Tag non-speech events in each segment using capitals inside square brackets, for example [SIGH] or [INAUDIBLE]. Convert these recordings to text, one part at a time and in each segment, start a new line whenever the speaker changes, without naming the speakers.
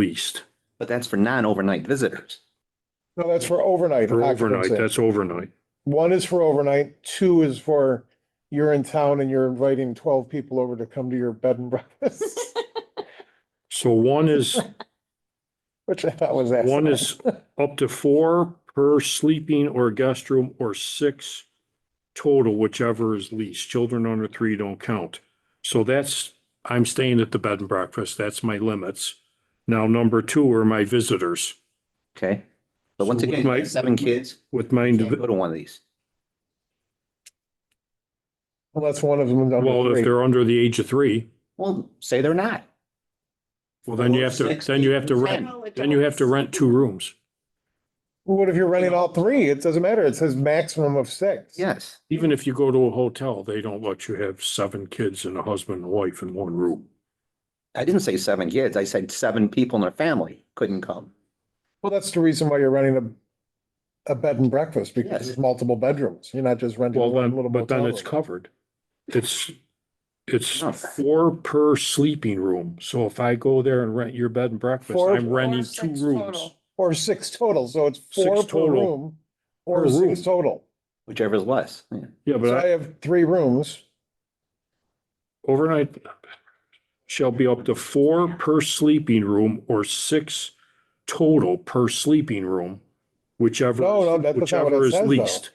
least.
But that's for non-overnight visitors.
No, that's for overnight.
For overnight,
occupancy.
that's overnight.
One is for overnight, two is for you're in town and you're inviting twelve people over to come to your bed and [LAUGHS] breakfast,
So one is,
which I thought was that.
one is up to four per sleeping or guest room or six total, whichever is least. Children under three don't count. So that's, I'm staying at the bed and breakfast. That's my limits. Now, number two are my visitors
Okay. But once
So what
again, you
might-
have seven kids,
with my,
you
indivi-
can't go to one of these.
Unless one of them. is under
well, if
three.
they're under the age of three,
Well, say they're not.
well, then you have to, then you have to rent, then you have to rent two rooms.
What if you're renting all three? It doesn't matter. It says maximum of six.
Yes.
Even if you go to a hotel, they don't let you have seven kids and a husband and wife in one room.
I didn't say seven kids. I said seven people in their family couldn't come.
Well, that's the reason why you're renting a, a bed and breakfast because
Yes.
there's multiple bedrooms. You're not just renting.
Well,
one
then,
little
but then
motel
it's
room.
covered. It's, it's
Oh.
four per sleeping room. So if I go there and rent your bed and breakfast,
Four-
I'm renting two rooms.
Or six total, so it's
Six
four per
total.
room or
Per
six
room.
total.
Whichever is less. Yeah.
Yeah,
So
but
I
I-
have three rooms.
overnight shall be up to four per sleeping room or six total per sleeping room, whichever,
No, no, that- that's not what it
whichever is
says, though.
least.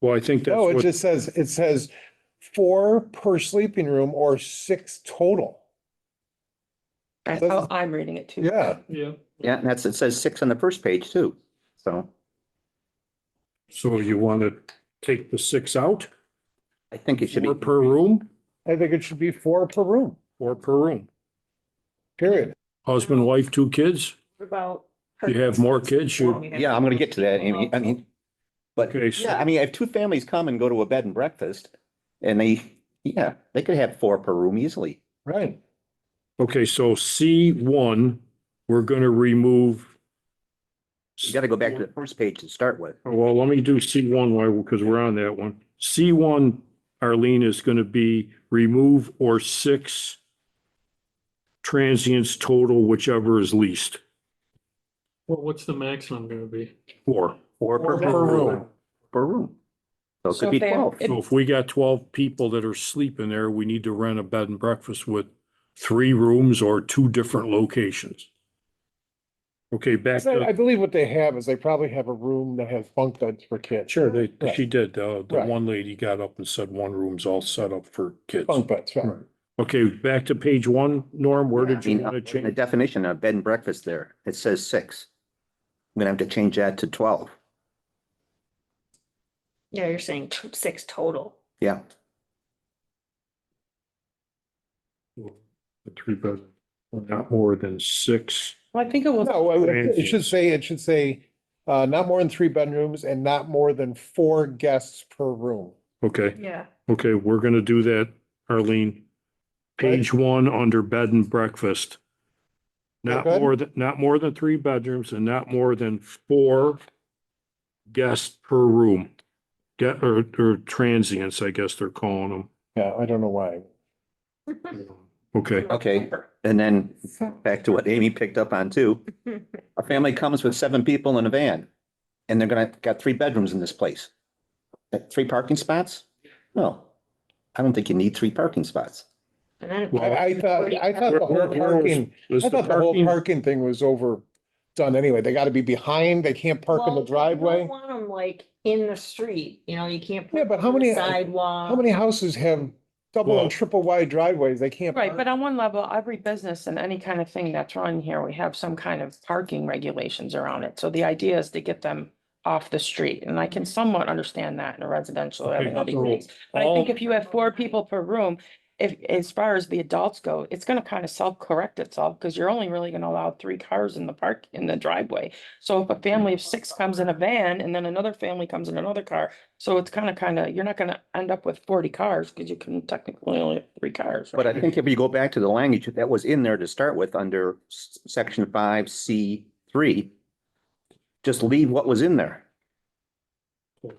Well, I think that's
No, it
what,
just says, it says four per sleeping room or six total.
That's
That's-
how I'm reading it too.
Yeah,
yeah.
Yeah, and that's, it says six on the first page too. So
So you want to take the six out,
I think it should
four
be,
per room,
I think it should be four per room,
four per room.
period.
Husband, wife, two kids?
What About.
You have more kids, you-
yeah, I'm gonna get to that, Amy. I mean, but
Okay, so-
yeah, I mean, if two families come and go to a bed and breakfast and they, yeah, they could have four per room easily.
Right.
Okay, so C one, we're gonna remove.
You gotta go back to the first page to start with.
Oh, Well, let me do C one while, because we're on that one. C one, Arlene, is gonna be remove or six transients total, whichever is least.
Well, what's the maximum gonna be?
Four.
Four per
Four per
room,
room.
per room. So it
So
could be
if they-
twelve.
So if we got twelve people that are sleeping there, we need to rent a bed and breakfast with three rooms or two different locations. Okay, back
So I
to,
believe what they have is they probably have a room that has bunk beds for kids.
sure, they,
Right.
she did, uh, the
Right.
one lady got up and said one room's all set up for kids.
Bunk beds, right.
Okay, back to page one, Norm, where
I
did you
mean,
want to
in The
change?
definition of bed and breakfast there, it says six. I'm gonna have to change that to twelve.
Yeah, you're saying t- six total.
Yeah,
The Three bed, not more than six.
Well, I think it was.
No, I would- it should say, it should say, uh, not more than three bedrooms and not more than four guests per room.
Okay,
Yeah,
okay, we're gonna do that, Arlene. Page one, under bed and breakfast. Not
Okay.
more than, not more than three bedrooms and not more than four guests per room. Get, or, or transients, I guess they're calling
Yeah, I don't know why.
them. Okay,
okay. And then back to what Amy picked up on
[LAUGHS]
too. A family comes with seven people in a van and they're gonna, got three bedrooms in this place. Uh, Three parking spots? No, I don't think you need three parking spots.
and then.
I, I thought, I thought
Where-
the whole
where- where was-
parking,
is
I
the
thought the whole
parking-
parking thing was overdone anyway. They gotta be behind, they can't park in
Well,
the
you don't
driveway.
Want them like in the street, you know, you can't.
Yeah,
put
but how
them on
many-
the Sidewalk.
How many houses have double
Well-
and triple wide driveways? They can't.
Right,
park.
but on one level, every business and any kind of thing that's run here, we have some kind of parking regulations around it. So the idea is to get them off the street, and I can somewhat understand that in a residential.
Okay,
or having all these
so
things. But I
all-
think if you have four people per room, if, as far as the adults go, it's gonna kind of self-correct itself, because you're only really gonna allow three cars in the park, in the driveway. So if a family of six comes in a van, and then another family comes in another car, so it's kind of, kind of, you're not gonna end up with forty cars, because you can technically only have three cars.
But I
right?
think if you go back to the language that was in there to start with under s- section five, C three, just leave what was in there.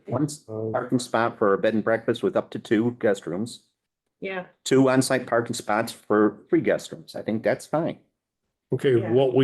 One parking spot for a bed and breakfast with up to two guest rooms,
Yeah,
two on-site parking spots for three guest rooms. I think that's fine.
Okay,
Yeah.
what we